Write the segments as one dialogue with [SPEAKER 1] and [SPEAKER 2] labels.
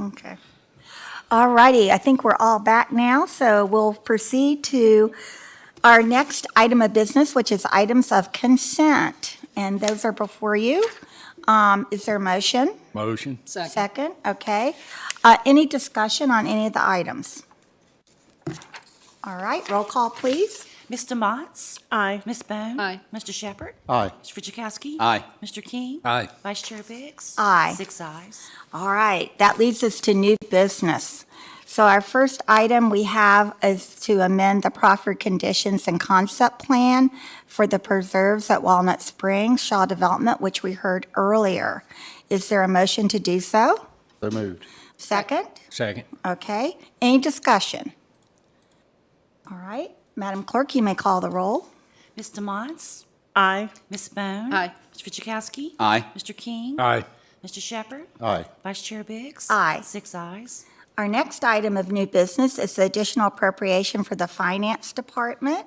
[SPEAKER 1] Okay. All righty, I think we're all back now, so we'll proceed to our next item of business, which is items of consent, and those are before you. Um, Is there a motion?
[SPEAKER 2] Motion.
[SPEAKER 3] Second.
[SPEAKER 1] Second, okay. Uh, Any discussion on any of the items? All right, roll call, please.
[SPEAKER 4] Mr. Motts? Aye. Ms. Bone?
[SPEAKER 3] Aye.
[SPEAKER 4] Mr. Shepherd?
[SPEAKER 2] Aye.
[SPEAKER 4] Mr. Fitchukowski?
[SPEAKER 2] Aye.
[SPEAKER 4] Mr. King?
[SPEAKER 2] Aye.
[SPEAKER 4] Vice Chair Biggs?
[SPEAKER 1] Aye.
[SPEAKER 4] Six ayes.
[SPEAKER 1] All right, that leads us to new business. So our first item we have is to amend the proffered conditions and concept plan for the preserves at Walnut Springs Shaw Development, which we heard earlier. Is there a motion to do so?
[SPEAKER 2] So moved.
[SPEAKER 1] Second?
[SPEAKER 2] Second.
[SPEAKER 1] Okay, any discussion? All right, Madam Clerk, you may call the roll.
[SPEAKER 4] Mr. Motts?
[SPEAKER 5] Aye.
[SPEAKER 4] Ms. Bone?
[SPEAKER 3] Aye.
[SPEAKER 4] Mr. Fitchukowski?
[SPEAKER 2] Aye.
[SPEAKER 4] Mr. King?
[SPEAKER 2] Aye.
[SPEAKER 4] Mr. Shepherd?
[SPEAKER 2] Aye.
[SPEAKER 4] Vice Chair Biggs?
[SPEAKER 1] Aye.
[SPEAKER 4] Six ayes.
[SPEAKER 1] Our next item of new business is the additional appropriation for the Finance Department.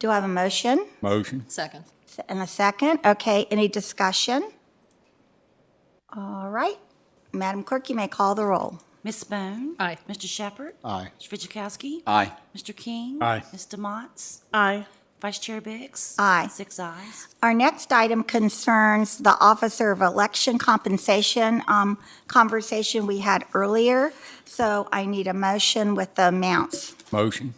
[SPEAKER 1] Do I have a motion?
[SPEAKER 2] Motion.
[SPEAKER 3] Second.
[SPEAKER 1] And a second. Okay, any discussion? All right. Madam Clerk, you may call the roll.
[SPEAKER 4] Ms. Bone?
[SPEAKER 3] Aye.
[SPEAKER 4] Mr. Shepherd?
[SPEAKER 2] Aye.
[SPEAKER 4] Mr. Fitchukowski?
[SPEAKER 2] Aye.
[SPEAKER 4] Mr. King?
[SPEAKER 2] Aye.
[SPEAKER 4] Mr. Motts?
[SPEAKER 5] Aye.
[SPEAKER 4] Vice Chair Biggs?
[SPEAKER 1] Aye.
[SPEAKER 4] Six ayes.
[SPEAKER 1] Our next item concerns the Officer of Election Compensation um, conversation we had earlier. So I need a motion with the amounts.
[SPEAKER 2] Motion.